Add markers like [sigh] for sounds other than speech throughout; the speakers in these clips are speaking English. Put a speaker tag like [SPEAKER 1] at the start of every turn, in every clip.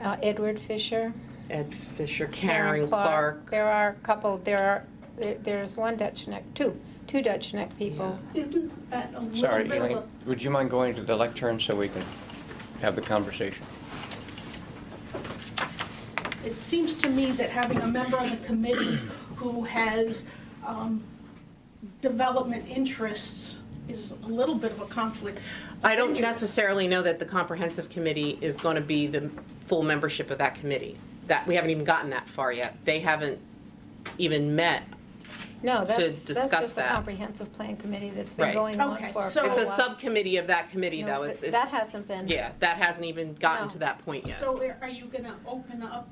[SPEAKER 1] uh, Edward Fisher.
[SPEAKER 2] Ed Fisher, Karen Clark.
[SPEAKER 1] There are a couple, there are, there- there's one Dutch Neck, two, two Dutch Neck people.
[SPEAKER 3] Isn't that a little
[SPEAKER 4] Sorry,
[SPEAKER 3] bit of
[SPEAKER 4] Elaine,
[SPEAKER 3] a
[SPEAKER 4] would you mind going to the lectern so we can have the conversation?
[SPEAKER 3] it seems to me that having a member of the committee who has um, development interests is a little bit of a conflict.
[SPEAKER 2] I don't
[SPEAKER 3] Anyway,
[SPEAKER 2] necessarily know that the comprehensive committee is going to be the full membership of that committee. That, we haven't even gotten that far yet. They haven't even met.
[SPEAKER 1] No, that's, that's
[SPEAKER 2] discuss
[SPEAKER 1] just the
[SPEAKER 2] that.
[SPEAKER 1] comprehensive plan committee that's been
[SPEAKER 2] Right.
[SPEAKER 1] going on
[SPEAKER 3] Okay,
[SPEAKER 1] for.
[SPEAKER 3] so-
[SPEAKER 1] quite
[SPEAKER 2] It's a
[SPEAKER 1] while.
[SPEAKER 2] subcommittee of that committee,
[SPEAKER 1] Oh, No,
[SPEAKER 2] though.
[SPEAKER 1] but
[SPEAKER 2] It's, it's-
[SPEAKER 1] That hasn't been.
[SPEAKER 2] yeah, that hasn't even gotten
[SPEAKER 1] No.
[SPEAKER 2] to that point yet.
[SPEAKER 3] So are are you going to open up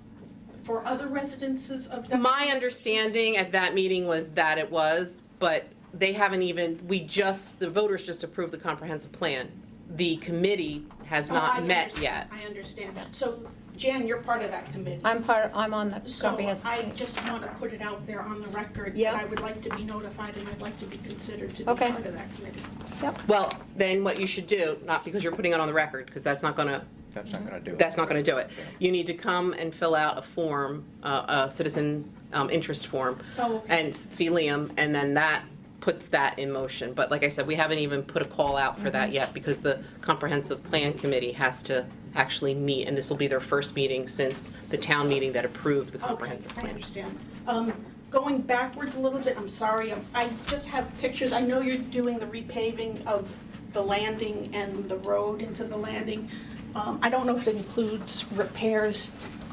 [SPEAKER 3] for other residences of Dutchess?
[SPEAKER 2] My understanding at that meeting was that it was, but they haven't even, we just, the voters just approved the comprehensive plan. The committee has
[SPEAKER 3] Oh, I
[SPEAKER 2] not met
[SPEAKER 3] understand,
[SPEAKER 2] yet.
[SPEAKER 3] I understand. So Jan, you're part of that committee.
[SPEAKER 1] I'm part, I'm on the
[SPEAKER 3] So
[SPEAKER 1] comprehensive.
[SPEAKER 3] I
[SPEAKER 1] plan.
[SPEAKER 3] just want to put it out there on the record. that
[SPEAKER 1] Yeah.
[SPEAKER 3] I would like to be notified and I'd like to be considered to be part
[SPEAKER 1] Okay.
[SPEAKER 3] of that committee.
[SPEAKER 1] Yep.
[SPEAKER 2] Well, then what you should do, not because you're putting it on the record, because that's not gonna,
[SPEAKER 4] That's not going to do it.
[SPEAKER 2] that's not gonna do it. You need to come and fill out a form, uh, a citizen um, interest form.
[SPEAKER 3] Oh, okay.
[SPEAKER 2] And see Liam, and then that puts that in motion. But like I said, we haven't even put a call out for
[SPEAKER 3] Mm-hmm.
[SPEAKER 2] that yet, because the comprehensive plan committee has to actually meet, and this will be their first meeting since the town meeting that approved the
[SPEAKER 3] Okay,
[SPEAKER 2] comprehensive
[SPEAKER 3] I
[SPEAKER 2] plan.
[SPEAKER 3] understand. Um, Going backwards a little bit, I'm sorry, I'm- I just have pictures. I know you're doing the repaving of the landing and the road into the landing. Um, I don't know if it includes repairs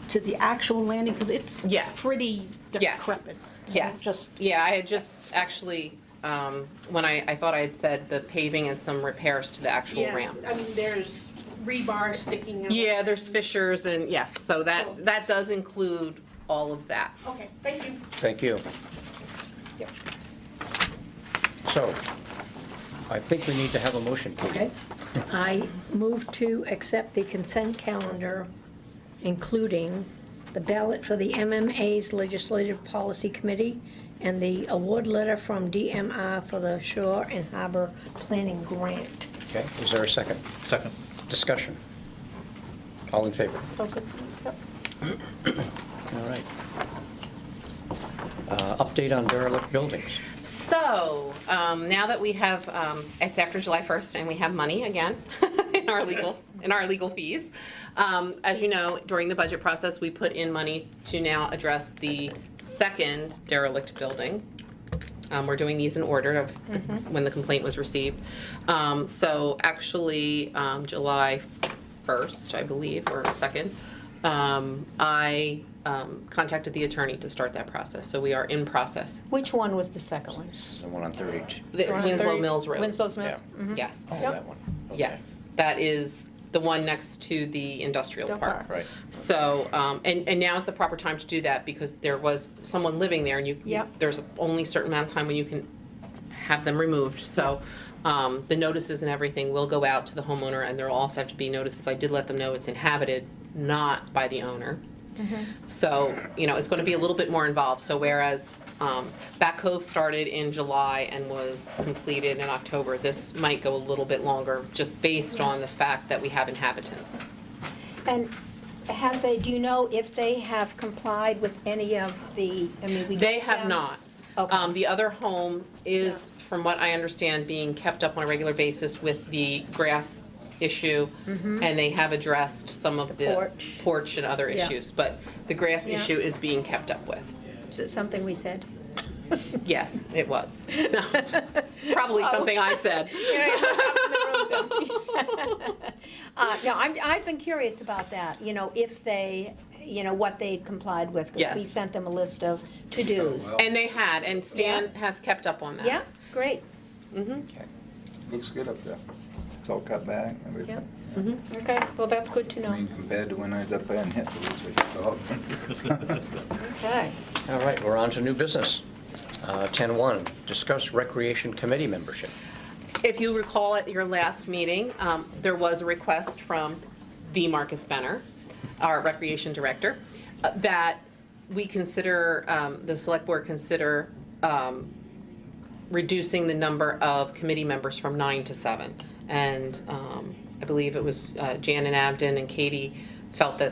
[SPEAKER 3] to the actual landing, because it's
[SPEAKER 2] Yes.
[SPEAKER 3] pretty
[SPEAKER 2] Yes.
[SPEAKER 3] decrepit. So
[SPEAKER 2] Yes.
[SPEAKER 3] Just,
[SPEAKER 2] Yeah, I had just actually, um, when I, I thought I had said the paving and some repairs to the actual ramp.
[SPEAKER 3] yes, I mean, there's rebar sticking out.
[SPEAKER 2] Yeah, there's fissures and, yes, so
[SPEAKER 3] Cool.
[SPEAKER 2] that, that does include all of that.
[SPEAKER 3] Okay, thank you.
[SPEAKER 4] Thank you.
[SPEAKER 3] Yep.
[SPEAKER 4] So I think we need to have a motion, Katie.
[SPEAKER 5] Okay. I move to accept the consent calendar, including the ballot for the MMA's Legislative Policy Committee and the award letter from DMR for the Shore and Harbor Planning Grant.
[SPEAKER 4] Okay, is there a second?
[SPEAKER 6] Second.
[SPEAKER 4] Discussion? All in favor?
[SPEAKER 1] Okay. Yep.
[SPEAKER 4] All right. Uh, Update on derelict buildings.
[SPEAKER 2] So, um, now that we have, um, it's after July 1st and we have money again [laughs] in our legal, in our legal fees. Um, as you know, during the budget process, we put in money to now address the second derelict building. Um, we're doing these in order of the- when the complaint was received. Um, so actually, um, July 1st, I believe, or 2nd, um, I, um, contacted the attorney to start that process. So we are in process
[SPEAKER 1] Which one was the second one?
[SPEAKER 4] The one on 32.
[SPEAKER 2] the
[SPEAKER 1] One
[SPEAKER 2] Winslow
[SPEAKER 1] thirty-
[SPEAKER 2] Mills Road.
[SPEAKER 1] Winslow Mills.
[SPEAKER 4] Yeah.
[SPEAKER 1] Mhm.
[SPEAKER 2] Yes,
[SPEAKER 4] Oh, that one. Okay.
[SPEAKER 2] yes. That is the one next to the industrial
[SPEAKER 1] Don't
[SPEAKER 2] park.
[SPEAKER 4] Right.
[SPEAKER 2] So, um, and, and now is the proper time to do that because there was someone living there and you,
[SPEAKER 1] Yep.
[SPEAKER 2] there's only a certain amount of time when you can have them removed. So, um, the notices and everything will go out to the homeowner and there will also have to be notices. I did let them know it's inhabited, not by the owner. So, you know, it's going to be a little bit more involved. So whereas um, Back Cove started in July and was completed in October, this might go a little bit longer, just based on the fact that we have inhabitants.
[SPEAKER 1] And have they, do you know if they have complied with any of the, I mean, we.
[SPEAKER 2] They
[SPEAKER 1] get
[SPEAKER 2] have
[SPEAKER 1] them-
[SPEAKER 2] not.
[SPEAKER 1] Okay.
[SPEAKER 2] Um, The other home is, from what I understand, being kept up on a regular basis with the grass issue, and they have addressed some of
[SPEAKER 1] Mm-hmm. The
[SPEAKER 2] the
[SPEAKER 1] porch.
[SPEAKER 2] porch and other
[SPEAKER 1] Yeah.
[SPEAKER 2] issues, but the grass
[SPEAKER 1] Yeah.
[SPEAKER 2] issue is being kept
[SPEAKER 1] [laughs]
[SPEAKER 2] up with.
[SPEAKER 1] Is it something we said? [laughs]
[SPEAKER 2] Yes, it was. [laughs] No,
[SPEAKER 1] Oh.
[SPEAKER 2] Probably something I said.
[SPEAKER 1] [laughs] Uh, no, I'm, I've been curious about that, you know, if they, you know, what they'd complied with. 'cause We
[SPEAKER 2] Yes.
[SPEAKER 1] sent them a list of to-dos.
[SPEAKER 2] And they had, and Stan has kept up on that.
[SPEAKER 1] Yeah, great,
[SPEAKER 4] Okay.
[SPEAKER 7] Looks good up there. It's all cut back and everything.
[SPEAKER 1] okay, well, that's good to
[SPEAKER 7] I
[SPEAKER 1] know.
[SPEAKER 7] mean, compared to when I was up there and hit the woods with the dog.
[SPEAKER 1] Okay.
[SPEAKER 4] All right, we're on to new business. Uh, 10-1, discuss recreation committee membership.
[SPEAKER 2] If you recall at your last meeting, um, there was a request from the Marcus Benner, our recreation director, uh, that we consider, um, the select board consider um, reducing the number of committee members from nine to seven. And um, I believe it was uh, Jan and Abden and Katie felt that